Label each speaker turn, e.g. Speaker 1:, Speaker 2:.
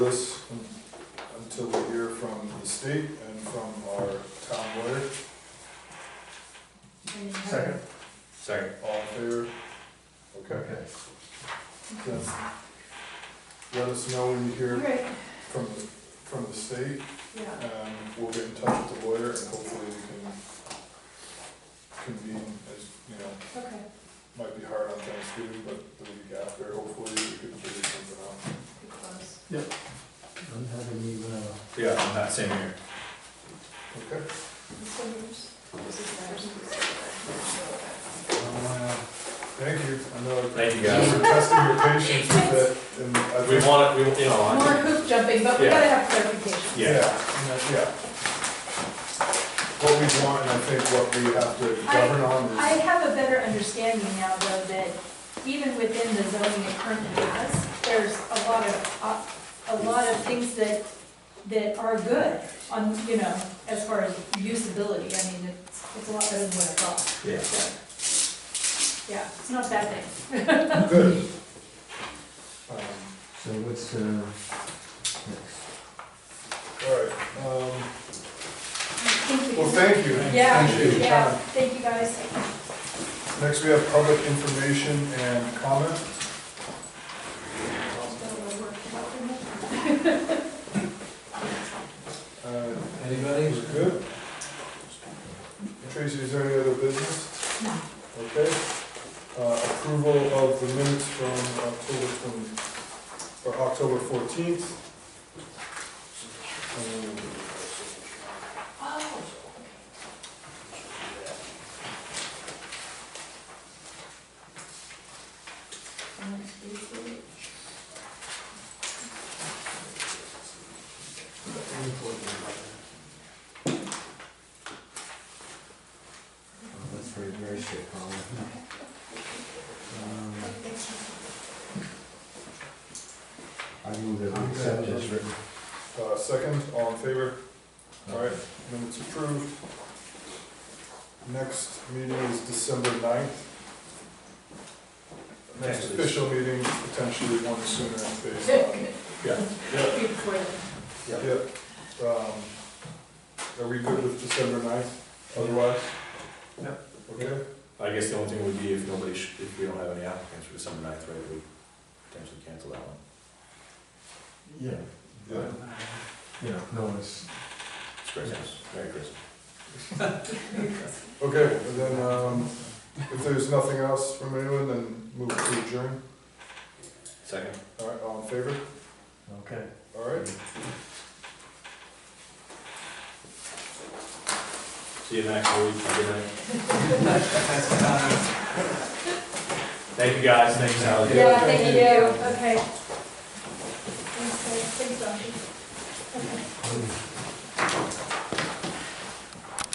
Speaker 1: this until we hear from the state and from our town lawyer,
Speaker 2: Second.
Speaker 3: Second.
Speaker 1: all in favor? Okay,
Speaker 2: Okay.
Speaker 1: then let us know when you hear
Speaker 4: Great,
Speaker 1: from, the from the state,
Speaker 4: yeah,
Speaker 1: and we'll get in touch with the lawyer, and hopefully we can convene, as, you know,
Speaker 4: okay,
Speaker 1: might be hard on Thanksgiving, but the week after, hopefully we can figure something out.
Speaker 4: good close.
Speaker 2: I'm having you, uh,
Speaker 3: Yeah, I'm not same here.
Speaker 1: Okay?
Speaker 4: This one yours? This is ours. This
Speaker 1: Thank you, I know.
Speaker 3: Thank you, guys.
Speaker 1: We're testing your patience with it, and I
Speaker 3: We
Speaker 1: think-
Speaker 3: want it, we, you
Speaker 4: is
Speaker 3: know,
Speaker 4: ours.
Speaker 3: I
Speaker 4: More
Speaker 3: think,
Speaker 4: hoop jumping, but we
Speaker 3: Yeah.
Speaker 4: gotta have clarification.
Speaker 3: Yeah.
Speaker 1: Yeah, and that- yeah. What we want, and I think what we have to
Speaker 4: I-
Speaker 1: govern on
Speaker 4: I
Speaker 1: is,
Speaker 4: have a better understanding now, though, that even within the zoning it currently has, there's a lot of, op- a lot of things that, that are good on, you know, as far as usability, I mean, it's, it's a lot better than what I thought,
Speaker 3: yeah.
Speaker 4: so. Yeah, it's not a bad thing.
Speaker 1: good. Um,
Speaker 2: so what's, uh, next?
Speaker 1: All right, um,
Speaker 4: Thank you.
Speaker 1: well, thank you.
Speaker 4: Yeah,
Speaker 1: Appreciate your
Speaker 4: yeah,
Speaker 1: time.
Speaker 4: thank you guys.
Speaker 1: Next, we have public information and comment. Uh,
Speaker 2: Anybody?
Speaker 1: Things are good. Tracy, is there any other business? Okay. Uh, Approval of the minutes from October twenty, or October fourteenth. Um,
Speaker 4: Oh,
Speaker 2: Oh, That's very, very straightforward. Um, I move that we accept as written.
Speaker 1: Uh, Second, all in favor? All right, minutes approved. Next meeting is December 9th. Next
Speaker 3: Potentially.
Speaker 1: official meeting, potentially one sooner based on.
Speaker 3: Yeah.
Speaker 1: Yeah.
Speaker 4: Good for them.
Speaker 1: Yeah, um, are we good with December ninth, otherwise?
Speaker 3: Yeah.
Speaker 1: Okay,
Speaker 3: I guess the only thing would be if nobody, sh- if we don't have any applicants for December ninth, right, we potentially cancel that one.
Speaker 2: Yeah.
Speaker 1: yeah,
Speaker 2: Yeah, no one's,
Speaker 3: It's Christmas, Merry Christmas.
Speaker 1: okay, and then, um, if there's nothing else from anyone, then move to adjourn,
Speaker 3: Second?
Speaker 1: all right, all in favor,
Speaker 2: okay.
Speaker 1: all right?
Speaker 3: See you next week, Have a good night. Thank you, guys, thanks, Alex.
Speaker 4: Yeah, thank you, okay. Thanks, guys. Thanks, Josh.
Speaker 2: Um,